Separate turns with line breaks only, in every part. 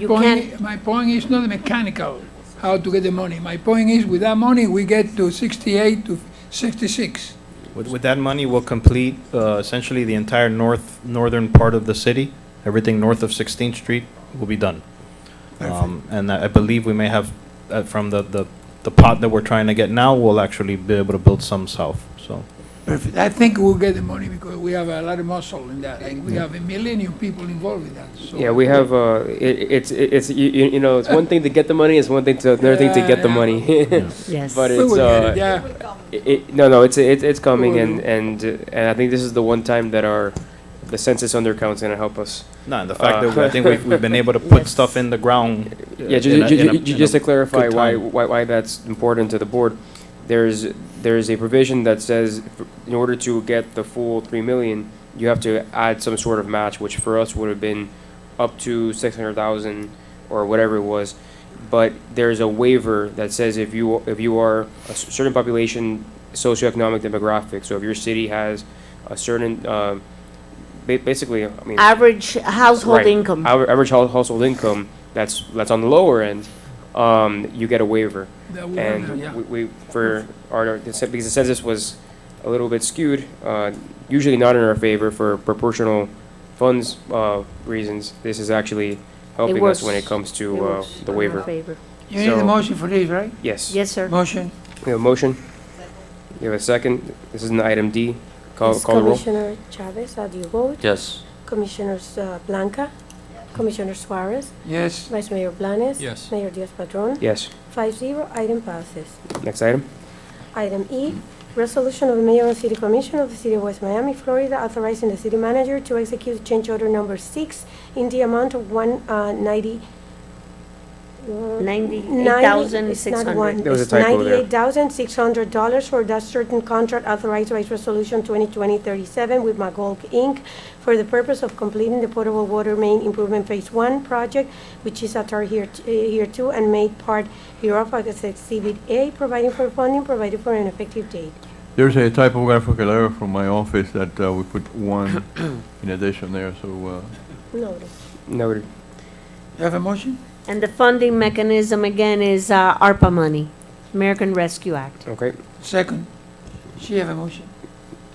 You
Point,
can,
i- my point is not mechanical, how to get the money. My point is, with that money, we get to 68 to 66.
With, with that money, we'll complete uh, essentially the entire north, northern part of the city. Everything north of 16th Street will be done. Um, And I I believe we may have, uh, from the, the, the pot that we're trying to get now, we'll actually be able to build some south, so.
Perfect. I think we'll get the money because we have a lot of muscle in that, and we have a million people involved in that, so.
Yeah, we have, uh, it, it's, it's, you, you you know, it's one thing to get the money, it's one thing to, another thing to get the
Yeah,
money.
yes.
But
We
it's,
will get
uh,
it, yeah.
it- it, no, no, it's, it's, it's coming
will.
and, and, uh, and I think this is the one time that our, the census undercount's gonna help us.
No, and the fact that
Uh,
we- I think we've, we've been able to put
Yes.
stuff in the ground. uh,
Yeah,
in a-
ju- ju-
in a-
ju- ju-
in a
just to clarify
good
why,
time.
why, why that's important to the board, there's, there's a provision that says f- in order to get the full three million, you have to add some sort of match, which for us would have been up to six hundred thousand or whatever it was. But there's a waiver that says if you, if you are a s- certain population, socioeconomic demographic, so if your city has a certain, uh, ba- basically, I mean.
Average household
Right.
income.
Our average hou- household income, that's, that's on the lower end, um, you get a waiver.
That we will do, yeah.
And we, we, for our, the cen- because the census was a little bit skewed, uh, usually not in our favor for proportional funds, uh, reasons, this is actually helping us when it
works.
comes
It
to, uh,
works
the
in our
waiver.
favor.
You need a
So-
motion for this, right?
Yes.
Yes, sir.
Motion?
We have a motion? We have a second? This is an item D. Call,
Yes,
Oh, call the roll.
Commissioner Chavez, how do you vote?
Yes.
Commissioner uh, Blanca? Commissioner Suarez?
Yes.
Vice Mayor Blanes?
Yes.
Mayor Diaz-Padrón?
Yes.
Five zero, item passes.
Next item?
Item E, resolution of the Mayor and City Commission of the City of West Miami, Florida, authorizing the city manager to execute change order number six in the amount of one uh, ninety. uh,
There
98,600.
was a
It's
typo there.
$98,600 for that certain contract authorized by Resolution 2020-37 with Magog Inc. for the purpose of completing the potable water main improvement Phase 1 project, which is at our here t- eh, here too and made part hereof as Exhibit A, providing for funding, provided for an effective date.
There's a typographical error from my office that uh, we put one in addition there, so uh,
Notice.
Noted.
You have a motion?
And the funding mechanism again is uh, ARPA money, American Rescue Act.
Okay.
Second. She have a motion?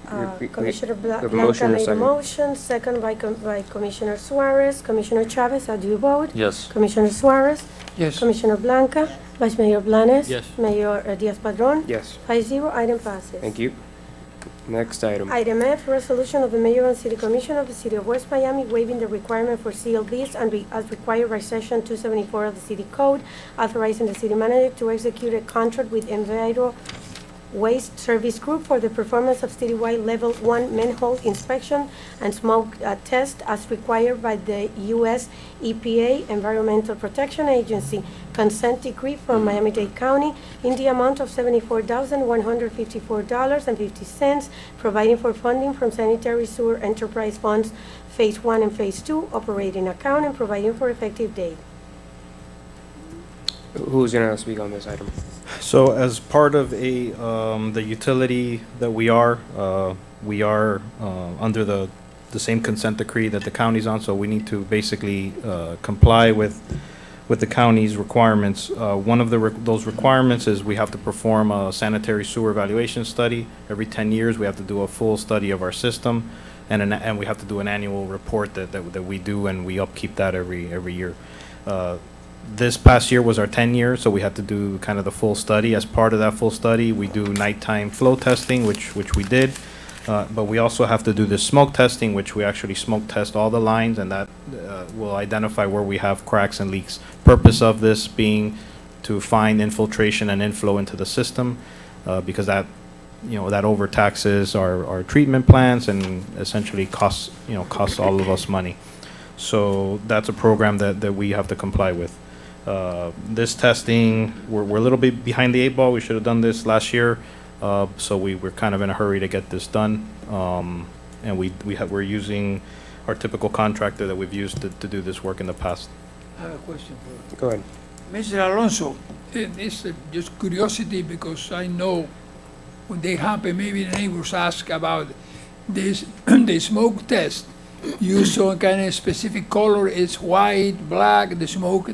Uh,
we- we-
Commissioner Bla-
we have a
Blanca
motion and a
made a
second.
motion, second by com- by Commissioner Suarez. Commissioner Chavez, how do you vote?
Yes.
Commissioner Suarez?
Yes.
Commissioner Blanca? Vice Mayor Blanes?
Yes.
Mayor uh, Diaz-Padrón?
Yes.
Five zero, item passes.
Thank you. Next item.
Item F, resolution of the mayor and city commission of the city of West Miami waiving the requirement for CLDs and re- as required by section two seventy-four of the city code, authorizing the city manager to execute a contract with Enviro Waste Service Group for the performance of citywide level one manhole inspection and smoke uh, test as required by the U.S. EPA Environmental Protection Agency consent decree from Miami-Dade County in the amount of seventy-four thousand one hundred fifty-four dollars and fifty cents, providing for funding from sanitary sewer enterprise funds, phase one and phase two, operating account, and providing for effective date.
Who's gonna speak on this item?
So as part of a, um, the utility that we are, uh, we are, uh, under the, the same consent decree that the county's on, so we need to basically, uh, comply with, with the county's requirements. Uh, one of the, re- those requirements is we have to perform a sanitary sewer evaluation study. Every ten years, we have to do a full study of our system, and an, and we have to do an annual report that, that, that we do, and we upkeep that every, every year. Uh, this past year was our 10 year, so we had to do kind of the full study. As part of that full study, we do nighttime flow testing, which, which we did. Uh, But we also have to do the smoke testing, which we actually smoke test all the lines, and that uh, will identify where we have cracks and leaks. Purpose of this being to find infiltration and inflow into the system, uh, because that, you know, that overtaxes our, our treatment plants and essentially costs, you know, costs all of us money. So that's a program that, that we have to comply with. Uh, This testing, we're, we're a little bit behind the eight ball. We should have done this last year. Uh, So we, we're kind of in a hurry to get this done. Um, And we, we have, we're using our typical contractor that we've used to, to do this work in the past.
I have a question for you.
Go ahead.
Mr. Alonso, eh, this is just curiosity because I know when they happen, maybe the neighbors ask about this, the smoke test. use some kind of specific color, it's white, black, the smoke,